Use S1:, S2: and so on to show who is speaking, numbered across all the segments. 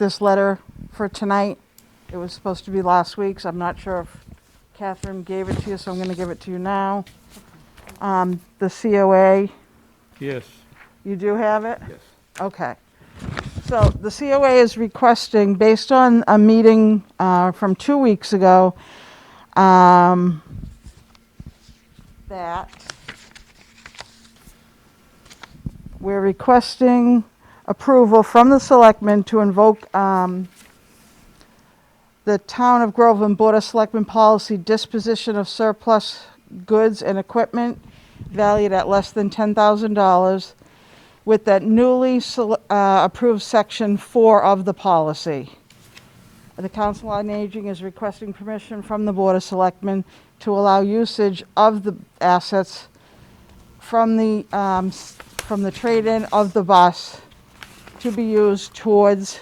S1: this letter for tonight. It was supposed to be last week's. I'm not sure if Catherine gave it to you, so I'm going to give it to you now. Um, The COA,
S2: Yes,
S1: you do have it?
S2: yes.
S1: Okay. So the COA is requesting, based on a meeting uh, from two weeks ago, um, that we're requesting approval from the selectmen to invoke um, the Town of Groveland Board of Selectmen policy disposition of surplus goods and equipment valued at less than $10,000 with that newly sele- uh, approved section four of the policy. The Council on Aging is requesting permission from the Board of Selectmen to allow usage of the assets from the, um, s- from the trade-in of the bus to be used towards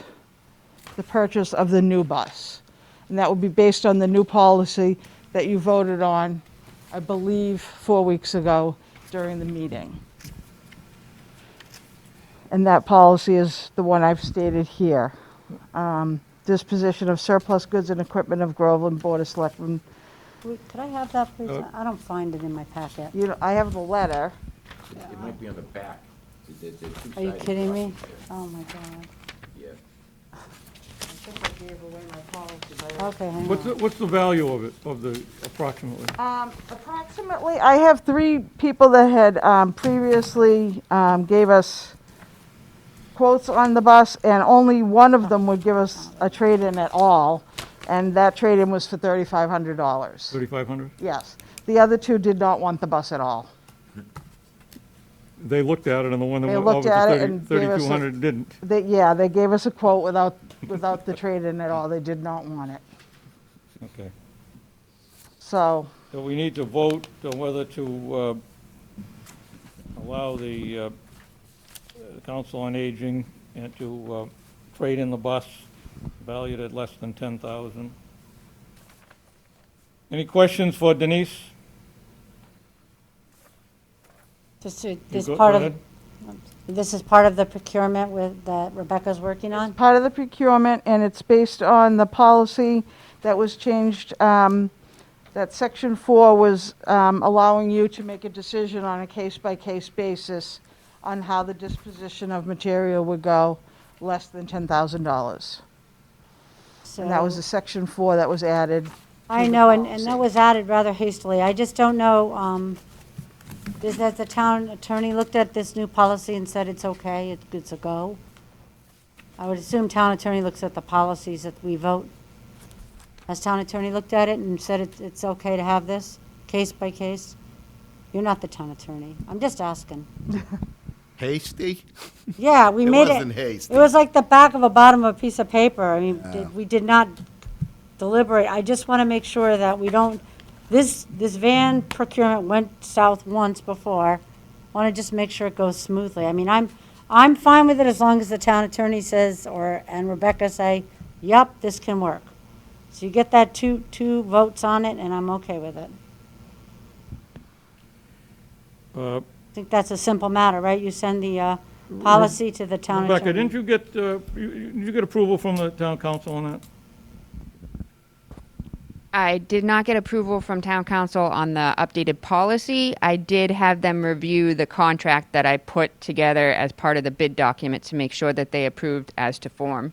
S1: the purchase of the new bus. And that would be based on the new policy that you voted on, I believe, four weeks ago during the meeting. And that policy is the one I've stated here. Um, Disposition of surplus goods and equipment of Groveland Board of Selectmen.
S3: Wait, Could I have that, please?
S2: Uh,
S3: I don't find it in my packet.
S1: You know, I have the letter.
S4: It it might be on the back. There- there- there two
S3: Are you
S4: sides
S3: kidding
S4: across
S3: me?
S4: there.
S3: Oh, my God.
S4: Yeah.
S3: Okay, hang
S2: What's, the-
S3: on.
S2: what's the value of it, of the approximately?
S1: Um, Approximately, I have three people that had um, previously um, gave us quotes on the bus, and only one of them would give us a trade-in at all, and that trade-in was for $3,500.
S2: 3,500?
S1: Yes. The other two did not want the bus at all.
S2: They looked at it, and the one that
S1: They
S2: went
S1: looked
S2: over
S1: at it
S2: to
S1: and gave us a-
S2: 3,200 didn't.
S1: They, yeah, they gave us a quote without, without the trade-in at all. They did not want it.
S2: Okay.
S1: So,
S2: So we need to vote on whether to uh, allow the uh, uh, Council on Aging and to uh, trade in the bus valued at less than 10,000. Any questions for Denise?
S3: This is-
S2: You
S3: this
S2: go-
S3: part
S2: go
S3: of,
S2: ahead.
S3: this is part of the procurement with, that Rebecca's working on?
S1: part of the procurement, and it's based on the policy that was changed, um, that section four was, um, allowing you to make a decision on a case-by-case basis on how the disposition of material would go, less than ten thousand dollars. And that was
S3: So-
S1: the section four that was added.
S3: I
S1: the
S3: know, and, and that
S1: policy.
S3: was added rather hastily. I just don't know, um, is that the town attorney looked at this new policy and said it's okay, it- it's a go? I would assume town attorney looks at the policies that we vote. Has town attorney looked at it and said it's, it's okay to have this, case by case? You're not the town attorney. I'm just asking.
S5: Hasty?
S3: Yeah, we
S5: It
S3: made it.
S5: wasn't hasty.
S3: It was like the back of a bottom of a piece of paper. I mean, did- we did not deliberate. I just want to make sure that we don't, this, this van procurement went south once before. Want to just make sure it goes smoothly. I mean, I'm, I'm fine with it as long as the town attorney says, or, and Rebecca say, yep, this can work. So you get that two, two votes on it, and I'm okay with it.
S2: Uh,
S3: I think that's a simple matter, right? You send the, uh, policy to the town attorney.
S2: Rebecca, didn't you get, uh, you- you- did you get approval from the town council on that?
S6: I did not get approval from town council on the updated policy. I did have them review the contract that I put together as part of the bid document to make sure that they approved as to form.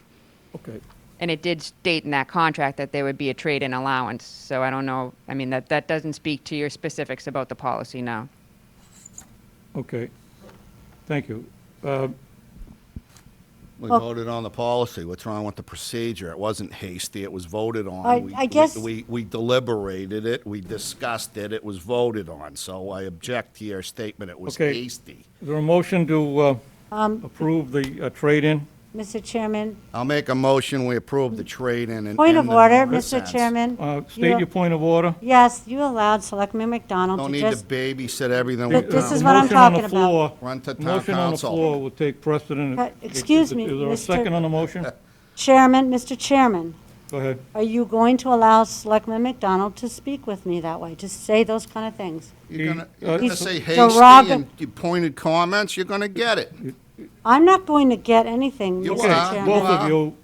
S2: Okay.
S6: And it did state in that contract that there would be a trade-in allowance, so I don't know, I mean, that, that doesn't speak to your specifics about the policy, no.
S2: Okay, thank you. Uh,
S5: We voted on the policy. What's wrong with the procedure? It wasn't hasty. It was voted on.
S3: I-
S5: We-
S3: I guess-
S5: We, we deliberated it. We discussed it. It was voted on. So I object to your statement. It was
S2: Okay.
S5: hasty.
S2: Is there a motion to uh,
S3: Um,
S2: approve the uh, trade-in?
S3: Mr. Chairman,
S5: I'll make a motion. We approve the trade-in and.
S3: Point of
S5: and the
S3: order, Mr.
S5: nonsense.
S3: Chairman.
S2: Uh,
S3: You-
S2: State your point of order.
S3: Yes, you allowed Selectman McDonald
S5: Don't
S3: to
S5: need
S3: just,
S5: to babysit everything.
S3: But
S5: we've
S3: this
S5: done.
S2: Uh,
S3: is what I'm talking about.
S5: Run to town
S2: Motion on the
S5: council.
S2: floor will take precedent.
S3: Uh, excuse me,
S2: Is there a
S3: Mr.
S2: second on the motion?
S3: Chairman, Mr. Chairman,
S2: Go ahead.
S3: are you going to allow Selectman McDonald to speak with me that way? Just say those kind of things.
S5: You're gonna,
S2: He-
S5: you're gonna
S3: He's
S5: say
S3: derogatory.
S5: hasty and you pointed comments, you're gonna get it.
S3: I'm not going to get anything,
S5: You
S3: Mr.
S5: are.
S3: Chairman.
S2: Both of you,